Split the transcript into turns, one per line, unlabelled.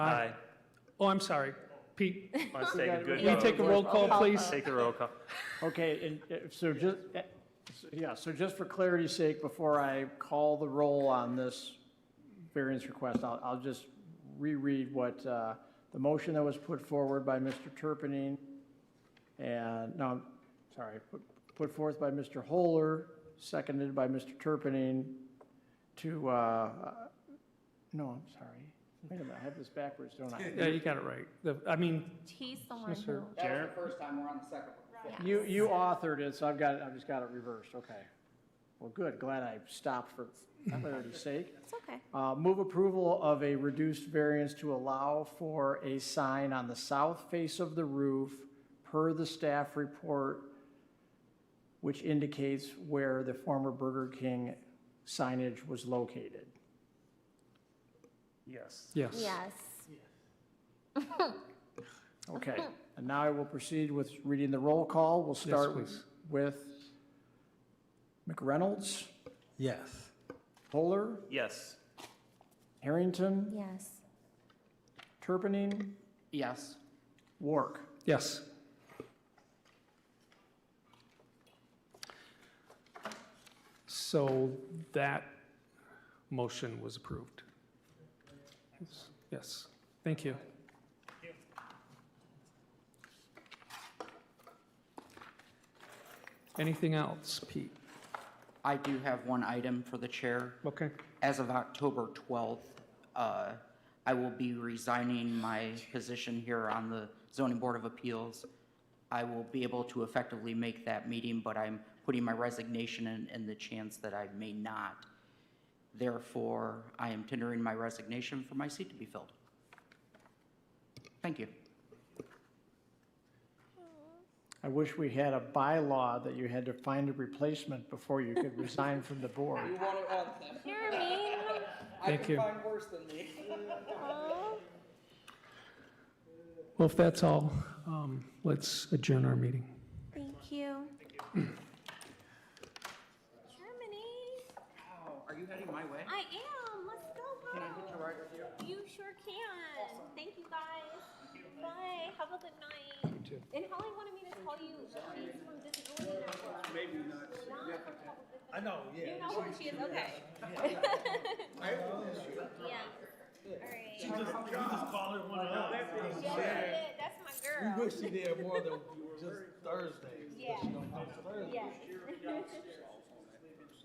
Aye.
Oh, I'm sorry. Pete,
Let's take a good
will you take a
vote.
roll call, please?
Take a roll call.
Okay, and uh, so just, uh, so- yeah, so just for clarity's sake, before I call the roll on this variance request, I'll, I'll just reread what, uh, the motion that was put forward by Mr. Turpinning and, no, I'm sorry, put- put forth by Mr. Holer, seconded by Mr. Turpinning to, uh, uh, no, I'm sorry. Wait a minute, I have this backwards, don't I?
Yeah, you got it right. The- I mean,
He's the one
Yes, sir.
who.
That was the first time, we're on the second one.
You, you authored it, so I've got, it- I've just got it reversed, okay. Well, good, glad I stopped for clarity's sake.
It's okay.
Uh, Move approval of a reduced variance to allow for a sign on the south face of the roof per the staff report, which indicates where the former Burger King signage was located.
Yes.
yes.
Yes.
Okay, and now I will proceed with reading the roll call. We'll start
please.
with McReynolds,
Yes.
Polar,
Yes.
Harrington,
Yes.
Turpinning,
Yes.
Wark.
Yes. So that motion was approved. Yes, thank you. Anything else, Pete?
I do have one item for the chair.
Okay,
As of October 12th, uh, I will be resigning my position here on the zoning board of appeals. I will be able to effectively make that meeting, but I'm putting my resignation in, in the chance that I may not. Therefore, I am tendering my resignation for my seat to be filled. Thank you.
I wish we had a bylaw that you had to find a replacement before you could resign from the board.
You're mean.
thank you.
worse than me.
Aw.
Well, if that's all, um, let's adjourn our meeting.
Thank you. Germany.
Are you heading my way?
I am. Let's go.
Can I hitch a
Bo.
ride with you?
You sure can. Thank you guys. Bye. Have a good night. And Holly wanted me to call you. She's from Disability Network. Maybe not. Not from Public Disability.
I know, yeah.
You know where she is. Okay.
I have this issue.
Yeah. All right.
She just, you just call her one up.
Yeah, that's it. That's my girl.
We wish she did more than just Thursdays.
Yeah.
She don't come Thursdays.
Yes.